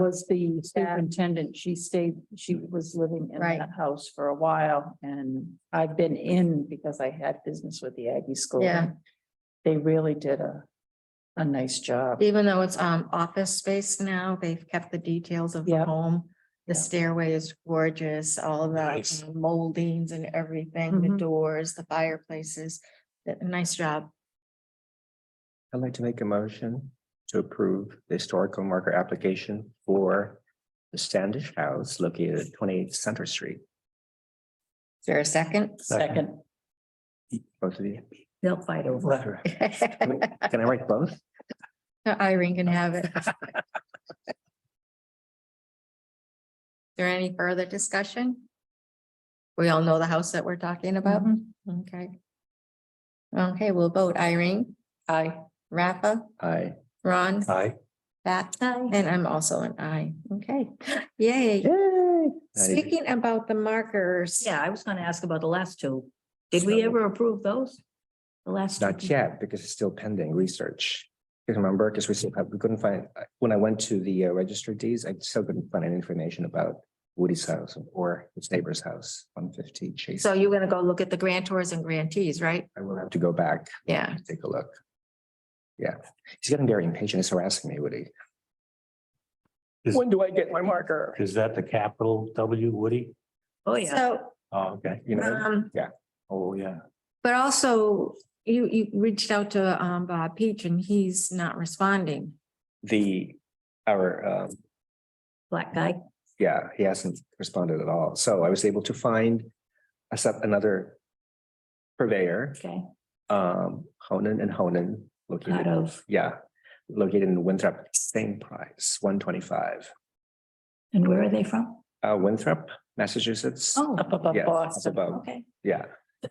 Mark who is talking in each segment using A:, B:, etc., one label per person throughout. A: was the superintendent. She stayed, she was living in
B: Right.
A: that house for a while and I've been in because I had business with the Aggie School.
B: Yeah.
A: They really did a, a nice job.
B: Even though it's um office space now, they've kept the details of the
A: Yep.
B: home. The
A: Yep.
B: stairway is gorgeous, all
C: Nice.
B: the moldings and everything, the
A: Mhm.
B: doors, the fireplaces. Th- Nice job.
C: I'd like to make a motion to approve the historical marker application for the Standish House located at twenty-eight Center Street.
B: Is there a second?
A: Second.
C: Both of you.
A: They'll fight over.
C: Can I write both?
B: Irene can have it. Is There any further discussion? We all know the house that we're talking about.
A: Mm-hmm.
B: Okay. Okay, we'll vote. Irene,
A: I,
B: Rafa,
C: Aye.
B: Ron,
C: Aye.
B: Pat, and I'm also an I. Okay, yay. Speaking about the markers.
D: Yeah, I was gonna ask about the last two. Did we
C: So-
D: ever approve those? The last? two
C: Not
D: people?
C: yet, because it's still pending research. Because remember, because we still, have- we couldn't find, when I went to the uh, register deeds, I still couldn't find any information about Woody's house or its neighbor's house, one fifty Chase.
B: So you're gonna go look at the grantors and grantees, right?
C: I will have to go back
B: Yeah.
C: and take a look. Yeah, he's getting very impatient. He's harassing me, Woody.
E: Is-
C: When do I get my marker?
E: Is that the capital W Woody?
D: Oh, yeah.
B: So,
E: Oh, okay.
C: You know,
B: um,
E: Oh, yeah.
B: but also you, you reached out to, um, Bob Peach and he's not responding.
C: the, our, um,
D: Black guy.
C: yeah, he hasn't responded at all. So I was able to find a sub, another purveyor,
D: Okay.
C: um, Honan and Honan,
D: Out
C: located,
D: of,
C: yeah, located in Winthrop, same price, one twenty-five.
D: and where are they from?
C: Uh, Winthrop, Massachusetts.
D: Oh,
A: up above
C: Yes, it's
A: Boston.
C: above,
D: okay.
C: yeah.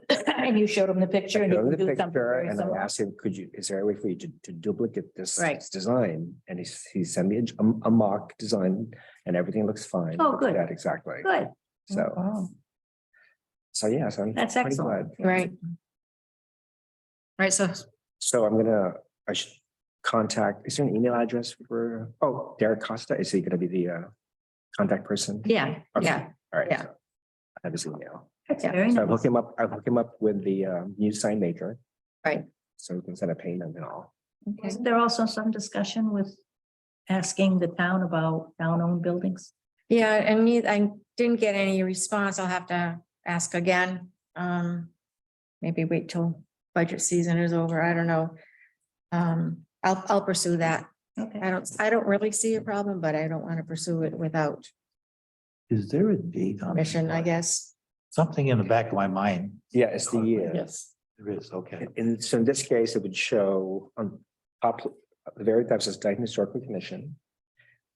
D: And you showed him the
C: I
D: picture and he
C: showed
D: can
C: him
D: do
C: the
D: something
C: picture
D: very
C: And I
D: similar.
C: asked him, could you, is there a way for you to, to duplicate this
D: Right.
C: this design? And he, s- he sent me a, j- a- a mock design and everything looks fine.
D: Oh, good.
C: Yeah, Exactly.
D: Good, Oh.
C: So,
A: Wow.
C: so yeah, so I'm.
D: That's
C: pretty
D: excellent.
C: glad.
B: Right. Right, so
C: So I'm gonna, I should contact, is there an email address for, oh, Derek Costa, is he gonna be the, uh, contact person?
B: Yeah,
C: Okay,
B: yeah,
C: All right.
B: yeah.
C: so I have his email.
D: that's
B: Yeah.
D: very
C: So I'll hook
D: nice.
C: him up, I'll hook him up with the, um, new sign maker.
B: Right.
C: So we can set a payment and all.
B: okay.
D: Wasn't there also some discussion with asking the town about town-owned buildings?
B: yeah, and me, I didn't get any response. I'll have to ask again. Um, maybe wait till budget season is over. I don't know. Um, I'll, I'll pursue that.
D: Okay.
B: I don't, I don't really see a problem, but I don't want to pursue it without
E: Is there a date on?
B: permission, I guess.
E: Something in the back of my mind.
C: Yeah, E. it's the year.
A: Yes.
E: There is, okay.
C: And so in this case, it would show on top, the very types of Dayton Historical Commission.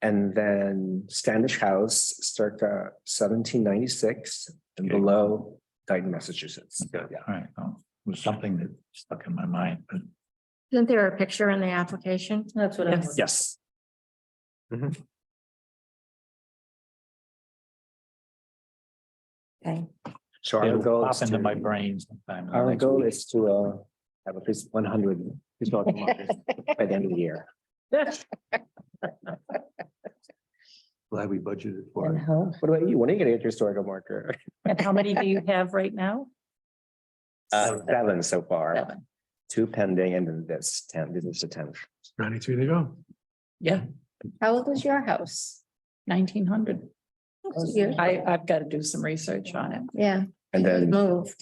C: And then Standish House circa seventeen ninety-six and
E: Okay.
C: below Dayton, Massachusetts.
E: Okay, All right, oh, it was something that stuck in my mind, but
B: Isn't there a picture in the application?
D: That's what I was.
C: Yes. Mm-hmm.
B: Okay,
C: So our
E: it'll
C: goal
E: pop
C: is
E: into my
C: to,
E: brain sometime. in the
C: our
E: next
C: goal
E: week.
C: is to uh have at least one hundred historical markers by the end of the year.
E: Glad we budgeted for
C: And
E: it.
A: Uh-huh.
C: how- What about you? When are you gonna get your historical marker?
A: And how many do you have right now?
C: Uh, seven so far,
A: Seven.
C: two pending and then this ten, this is the tenth.
E: Ninety-three to go.
A: Yeah,
B: how old is your house?
A: nineteen hundred.
B: Yeah.
A: I, I've got to do some research on it.
B: Yeah.
C: And then.
B: Moved.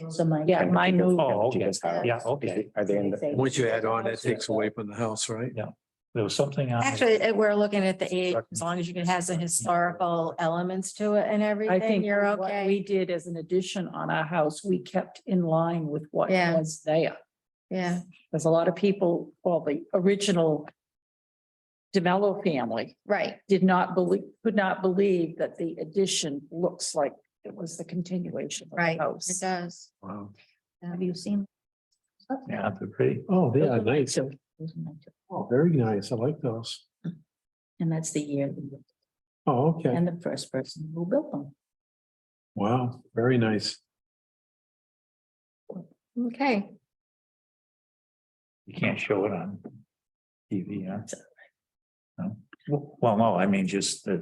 A: Yeah,
C: And
A: my
C: Chico's-
A: new,
E: Oh, okay.
C: Chico's house.
E: Yeah, okay.
C: Are they in the?
F: Once you add on, that takes away from the house, right?
E: There was something on.
B: Actually, eh, we're looking at the age, as long as you can have the historical elements to it and
A: I
B: everything,
A: think
B: you're
A: what
B: okay.
A: we did as an addition on our house, we kept in line with what
B: Yeah.
A: was there.
B: Yeah,
A: There's a lot of people, well, the original DeMello family
B: right.
A: did not believe, could not believe that the addition looks like it was the continuation of the
B: Right.
A: house.
B: It does.
E: Wow.
D: Have you seen?
E: Yeah, they're pretty.
F: Oh, yeah, nice.
A: So,
F: Oh, very nice. I like those.
D: And that's the year
F: Oh, okay.
D: and the first person who built them.
F: Wow, very nice.
B: Okay,
E: You can't show it on TV, huh? Well, no, I mean, just that